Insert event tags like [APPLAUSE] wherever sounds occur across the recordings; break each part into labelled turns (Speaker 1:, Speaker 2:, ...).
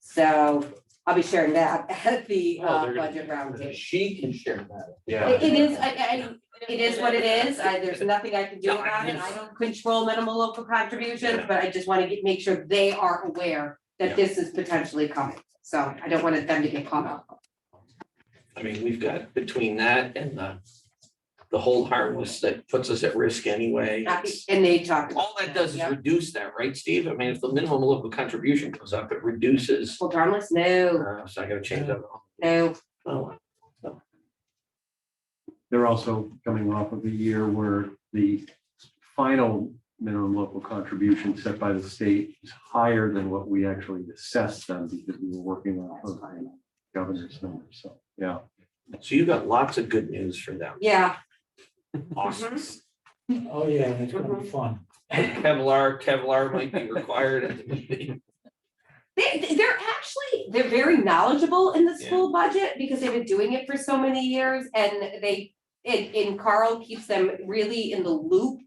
Speaker 1: So I'll be sharing that [LAUGHS] at the
Speaker 2: Oh,
Speaker 1: uh,
Speaker 2: they're gonna-
Speaker 1: budget roundtable.
Speaker 3: She can share that.
Speaker 2: Yeah.
Speaker 1: It it is, I, I, it is what it is. I, there's nothing I can do about it. I don't control minimal local contributions, but I just wanna get, make sure they are aware that this is potentially coming. So I don't want them to get caught up.
Speaker 2: I mean, we've got between that and the, the whole harmless that puts us at risk anyway. it's-
Speaker 1: And they talked. about
Speaker 2: All that does is
Speaker 1: Yeah.
Speaker 2: reduce that, right, Steve? I mean, if the minimum local contribution goes up, it reduces,
Speaker 1: Well, harmless, no,
Speaker 2: uh, so I gotta change that.
Speaker 1: no,
Speaker 2: Oh,
Speaker 4: They're also coming off of a year where the final minimum local contribution set by the state is higher than what we actually assessed them because we were working off of the governor's numbers. So, yeah.
Speaker 2: So you got lots of good news for them.
Speaker 1: yeah. Mm-hmm.
Speaker 2: Awesome.
Speaker 5: Oh, yeah, that's gonna be fun.
Speaker 2: Kevlar, Kevlar might be required at the
Speaker 1: [LAUGHS]
Speaker 2: meeting.
Speaker 1: They, they- they're actually, they're very knowledgeable in the
Speaker 2: Yeah.
Speaker 1: school budget because they've been doing it for so many years and they, and, and Carl keeps them really in the loop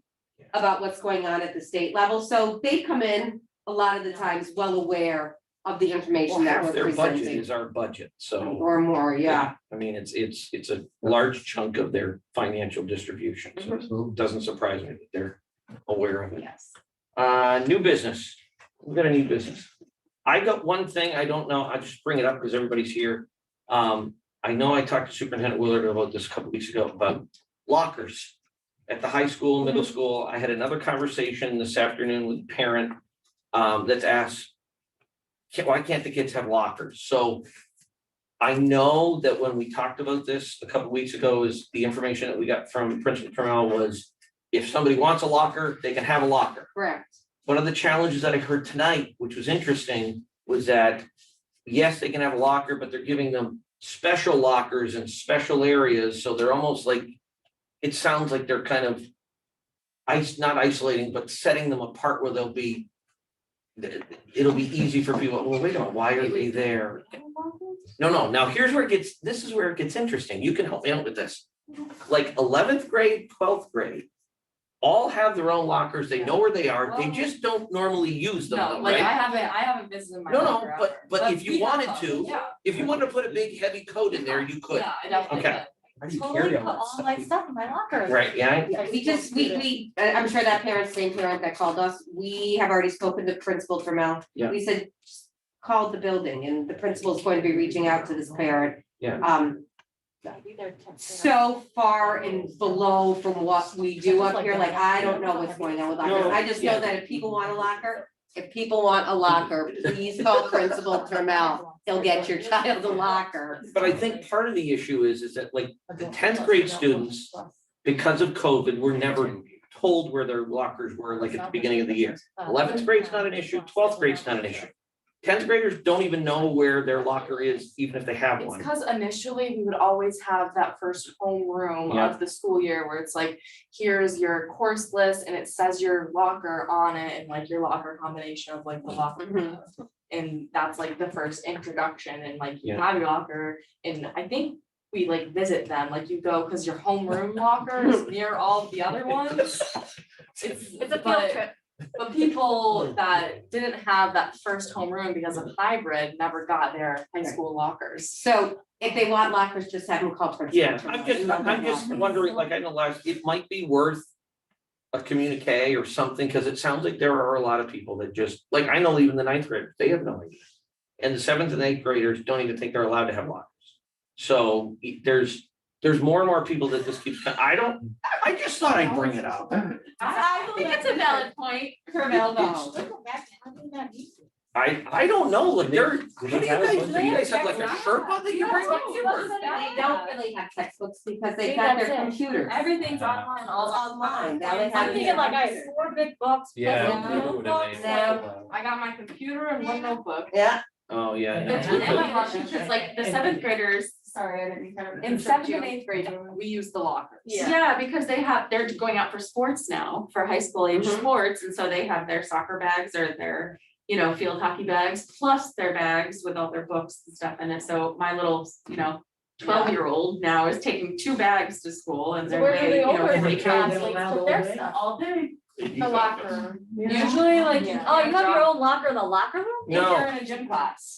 Speaker 1: about what's going on at the state level. So they come in a lot of the times well aware of the information that
Speaker 2: Half
Speaker 1: we're
Speaker 2: Their budget
Speaker 1: presenting.
Speaker 2: is our budget, so.
Speaker 1: Or more, yeah.
Speaker 2: I mean, it's, it's, it's a large chunk of their financial distribution, so
Speaker 1: Mm-hmm.
Speaker 2: it doesn't surprise me that they're aware of it.
Speaker 1: Yes.
Speaker 2: Uh, new business, we've got a new business. I got one thing, I don't know, I just bring it up because everybody's here. Um, I know I talked to Superintendent Willard about this a couple weeks ago, about lockers. At the high school, middle school, I had another conversation this afternoon with a parent, um, that's asked. "Ca- Why can't the kids have lockers? So. I know that when we talked about this a couple weeks ago, is the information that we got from Principal Trammell was. If somebody wants a locker, they can have a locker
Speaker 1: Correct.
Speaker 2: one of the challenges that I heard tonight, which was interesting, was that yes, they can have a locker, but they're giving them special lockers and special areas, so they're almost like it sounds like they're kind of ice, not isolating, but setting them apart where they'll be it'll be easy for people, well, wait a minute, why are they there? No, no, now here's where it gets, this is where it gets interesting. You can help me out with this. Like eleventh grade, twelfth grade, all have their own lockers. They know where they are. They just don't normally use them,
Speaker 6: No,
Speaker 2: though,
Speaker 6: like I
Speaker 2: right?
Speaker 6: haven't, I haven't visited my.
Speaker 2: No, no,
Speaker 6: locker
Speaker 2: but-
Speaker 6: ever.
Speaker 2: but if you
Speaker 6: we have
Speaker 2: wanted
Speaker 6: them,
Speaker 2: to,
Speaker 6: Yeah,
Speaker 2: If you wanted to put a big heavy coat in there, you could.
Speaker 6: yeah, I definitely
Speaker 2: Okay.
Speaker 6: could.
Speaker 3: Totally put all my stuff.
Speaker 2: Right, yeah,
Speaker 1: Yeah, we just, we, we, I- I'm sure that parent's same parent that called us, we have already spoken to Principal Trammell.
Speaker 2: Yeah.
Speaker 1: We said, "Just call the building and the principal's going to be reaching out to this parent.
Speaker 2: Yeah.
Speaker 1: Um, so far and below from what we do up here, like, I don't know what's going on with lockers. I just know that if people want a locker, if people want a locker, please call Principal Trammell. He'll get your child a locker.
Speaker 2: but I think part of the issue is, is that like the tenth grade students, because of COVID, were never told where their lockers were, like at the beginning of the year.
Speaker 6: uh,
Speaker 2: Eleventh grade's not an issue, twelfth grade's not an issue. Tenth graders don't even know where their locker is, even if they have
Speaker 6: It's
Speaker 2: one.
Speaker 6: because initially we would always have that first homeroom
Speaker 2: Yeah.
Speaker 6: of the school year where it's like, here's your course list and it says your locker on it and like your locker combination of like the locker.
Speaker 1: Mhm.
Speaker 2: Mm-hmm.
Speaker 6: And that's like the first introduction and like you
Speaker 2: Yeah.
Speaker 6: have your locker and I think we like visit them, like you go, cause your homeroom locker
Speaker 2: [LAUGHS]
Speaker 6: is near all of the other ones. It's, it's a field trip.
Speaker 2: [LAUGHS]
Speaker 6: But people that didn't have that first homeroom because of hybrid never got their high school lockers.
Speaker 1: So if they want lockers, just have them call Principal
Speaker 2: Yeah,
Speaker 1: Trammell.
Speaker 2: I'm just,
Speaker 1: Email them
Speaker 2: I'm just
Speaker 1: lockers.
Speaker 2: wondering, like, I know last, it might be worth a communique or something, because it sounds like there are a lot of people that just, like, I know even the ninth graders, they have no idea. And the seventh and eighth graders don't even think they're allowed to have lockers. So e- there's, there's more and more people that this keeps, I don't, I- I just thought I'd bring it up.
Speaker 6: I I think it's a valid point.
Speaker 1: Trammell, no.
Speaker 2: I, I don't know, like, there, what do you
Speaker 3: they have a
Speaker 2: guys,
Speaker 3: bunch
Speaker 2: do
Speaker 3: of-
Speaker 2: you guys have like a Sherpa that you bring
Speaker 6: No,
Speaker 2: up?
Speaker 6: it wasn't
Speaker 1: They don't really have textbooks because they've
Speaker 7: See,
Speaker 1: got their
Speaker 7: that's it.
Speaker 1: computers.
Speaker 3: Uh,
Speaker 7: Everything's online, all
Speaker 1: Online, now they have.
Speaker 7: I'm
Speaker 1: it
Speaker 7: thinking like I have
Speaker 1: computer.
Speaker 7: four big bucks.
Speaker 3: Yeah.
Speaker 7: plus
Speaker 3: we
Speaker 7: a
Speaker 3: would
Speaker 7: notebook,
Speaker 3: have made
Speaker 7: like-
Speaker 3: it.
Speaker 6: I got my computer and one notebook.
Speaker 1: Yeah,
Speaker 2: Oh, yeah.
Speaker 7: Yeah.
Speaker 2: no, we
Speaker 6: And
Speaker 2: could-
Speaker 6: my locker, because like the seventh graders,
Speaker 7: Sorry, I didn't kind of.
Speaker 6: in seventh and eighth grade, we use the lockers.
Speaker 7: Yeah.
Speaker 6: because they have, they're going out for sports now, for high school age
Speaker 1: Mhm.
Speaker 6: sports, and so they have their soccer bags or their, you know, field hockey bags, plus their bags with all their books and stuff in it, so my little, you know, twelve-year-old now is taking two bags to school and
Speaker 7: So
Speaker 6: they're
Speaker 7: where do
Speaker 6: weighing,
Speaker 7: they
Speaker 6: you know,
Speaker 7: order
Speaker 6: every
Speaker 7: the
Speaker 6: class
Speaker 7: travel
Speaker 6: weighs
Speaker 7: around
Speaker 6: put
Speaker 7: all
Speaker 6: their
Speaker 7: day?
Speaker 6: stuff, all day. the locker room.
Speaker 7: Yeah.
Speaker 6: Usually like,
Speaker 7: Yeah.
Speaker 6: oh, you have your own locker in the locker room? If
Speaker 2: No.
Speaker 6: you're in a gym class.